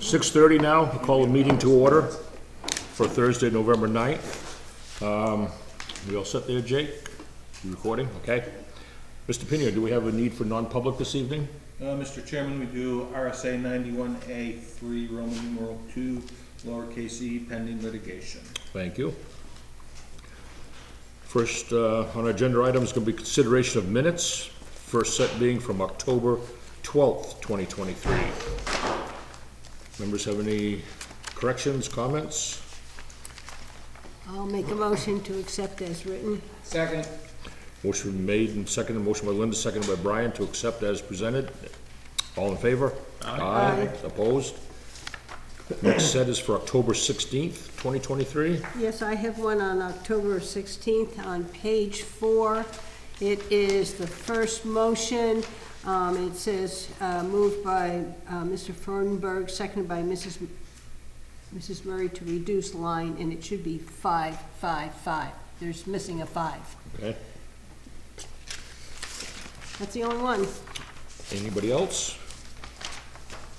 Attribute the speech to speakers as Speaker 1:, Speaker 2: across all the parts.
Speaker 1: 6:30 now, I'll call the meeting to order for Thursday, November 9th. Um, We all set there, Jake? You recording? Okay. Mr. Pinion, do we have a need for non-public this evening?
Speaker 2: Uh, Mr. Chairman, we do RSA ninety-one A three, Roman numeral two, lowercase e, pending litigation.
Speaker 1: Thank you. First, uh, on our agenda item is going to be consideration of minutes, first set being from October 12th, 2023. Members have any corrections, comments?
Speaker 3: I'll make a motion to accept as written.
Speaker 2: Second.
Speaker 1: Motion made and seconded, motion by Linda, seconded by Brian to accept as presented. All in favor? Aye. Opposed? Next set is for October 16th, 2023.
Speaker 3: Yes, I have one on October 16th on page four. It is the first motion. Um, It says, uh, moved by uh, Mr. Fernberg, seconded by Mrs. M- Mrs. Murray to reduce line, and it should be five, five, five. There's missing a five.
Speaker 1: Okay,
Speaker 3: That's the only one.
Speaker 1: anybody else?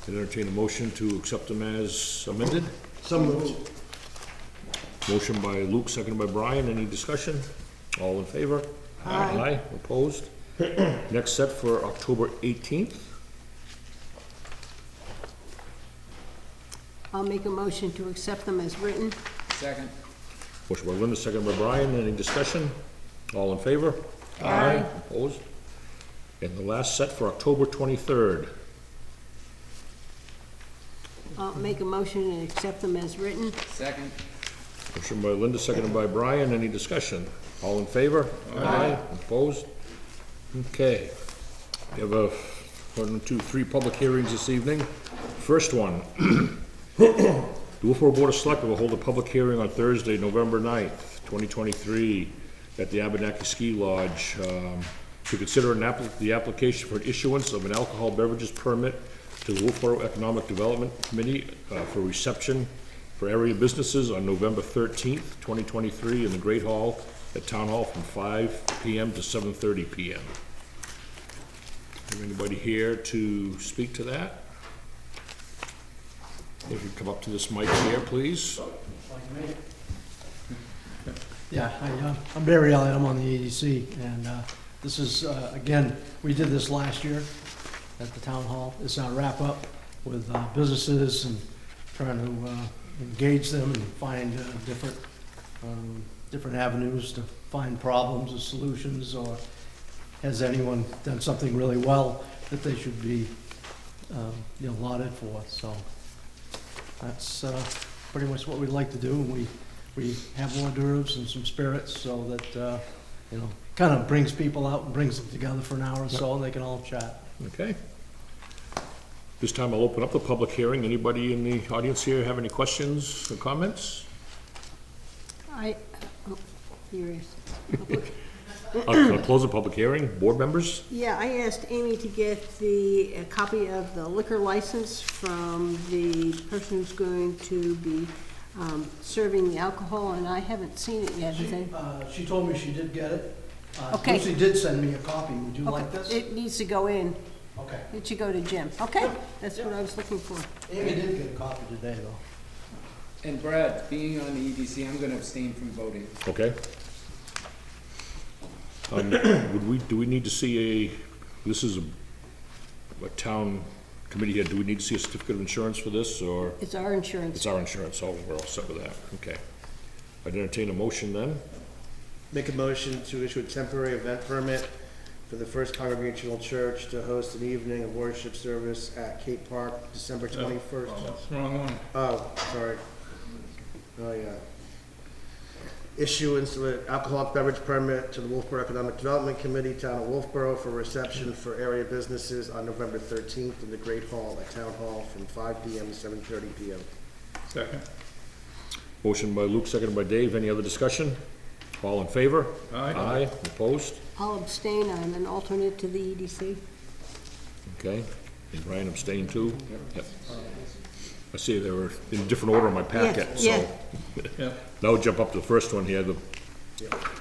Speaker 1: Can entertain a motion to accept them as amended?
Speaker 4: Some moved.
Speaker 1: Motion by Luke, seconded by Brian. Any discussion? All in favor? Aye. Aye, opposed? Next set for October 18th.
Speaker 3: I'll make a motion to accept them as written.
Speaker 2: Second.
Speaker 1: Motion by Linda, second by Brian, any discussion? All in favor? Aye. Opposed? And the last set for October twenty-third.
Speaker 3: I'll make a motion and accept them as written.
Speaker 2: Second.
Speaker 1: Motion by Linda, seconded by Brian, any discussion? All in favor? Aye. Opposed? Okay. We have a, one, two, three public hearings this evening. First one. The Wolfboro Board of Selectmen will hold a public hearing on Thursday, November 9th, 2023, at the Abenaki Ski Lodge um, to consider an appli- the application for an issuance of an alcohol beverages permit to the Wolfboro Economic Development Committee uh, for reception for area businesses on November 13th, 2023, in the Great Hall at Town Hall from 5 PM to 7:30 PM. Is anybody here to speak to that? If you come up to this mic here, please.
Speaker 4: Yeah, hi, uh, I'm Barry Elliott, I'm on the EDC, and uh, this is, uh, again, we did this last year at the town hall. It's our wrap-up with uh, businesses and trying to uh, engage them and find uh, different, um, different avenues to find problems or solutions, or has anyone done something really well that they should be, um, you know, lauded for, so that's uh, pretty much what we'd like to do, and we we have hors d'oeuvres and some spirits so that, uh, you know, kind of brings people out and brings them together for an hour or so and they can all chat.
Speaker 1: Okay. This time I'll open up the public hearing. Anybody in the audience here have any questions or comments?
Speaker 3: I, oh, here it is.
Speaker 1: I'll I'll close the public hearing. Board members?
Speaker 3: Yeah, I asked Amy to get the, a copy of the liquor license from the person who's going to be um, serving the alcohol, and I haven't seen it yet. Has
Speaker 4: She,
Speaker 3: any-
Speaker 4: uh, she told me she did get it. Uh,
Speaker 3: Okay.
Speaker 4: Lucy did send me a copy. Would you like
Speaker 3: Okay,
Speaker 4: this?
Speaker 3: It needs to go in.
Speaker 4: Okay.
Speaker 3: It should go to Jim. Okay, that's what I was looking for.
Speaker 4: Amy did get a copy today though.
Speaker 5: And Brad, being on the EDC, I'm gonna abstain from voting.
Speaker 1: Okay. Um, Would we, do we need to see a, this is a, a town committee here. Do we need to see a certificate of insurance for this or?
Speaker 3: It's our
Speaker 1: It's
Speaker 3: insurance.
Speaker 1: our insurance, so we're all set with that. Okay. I'd entertain a motion then.
Speaker 6: Make a motion to issue a temporary event permit for the First Congregational Church to host an evening of worship service at Cape Park, December twenty-first.
Speaker 2: Wrong one.
Speaker 6: Oh, sorry. Oh, yeah. Issuance of an alcoholic beverage permit to the Wolfboro Economic Development Committee, Town of Wolfboro, for reception for area businesses on November thirteenth in the Great Hall at Town Hall from five P M. to seven thirty P M.
Speaker 2: Second.
Speaker 1: Motion by Luke, seconded by Dave. Any other discussion? All in favor?
Speaker 2: Aye.
Speaker 1: Aye, opposed?
Speaker 3: I'll abstain. I'm an alternate to the E EDC.
Speaker 1: Okay, and Brian abstained too? Yep. I see they were in different order in my packet,
Speaker 3: yeah.
Speaker 1: so. Now we'll jump up to the first one here, the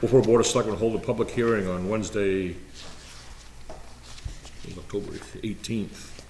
Speaker 1: Wolfboro Board of Selectmen hold a public hearing on Wednesday, it was October eighteenth,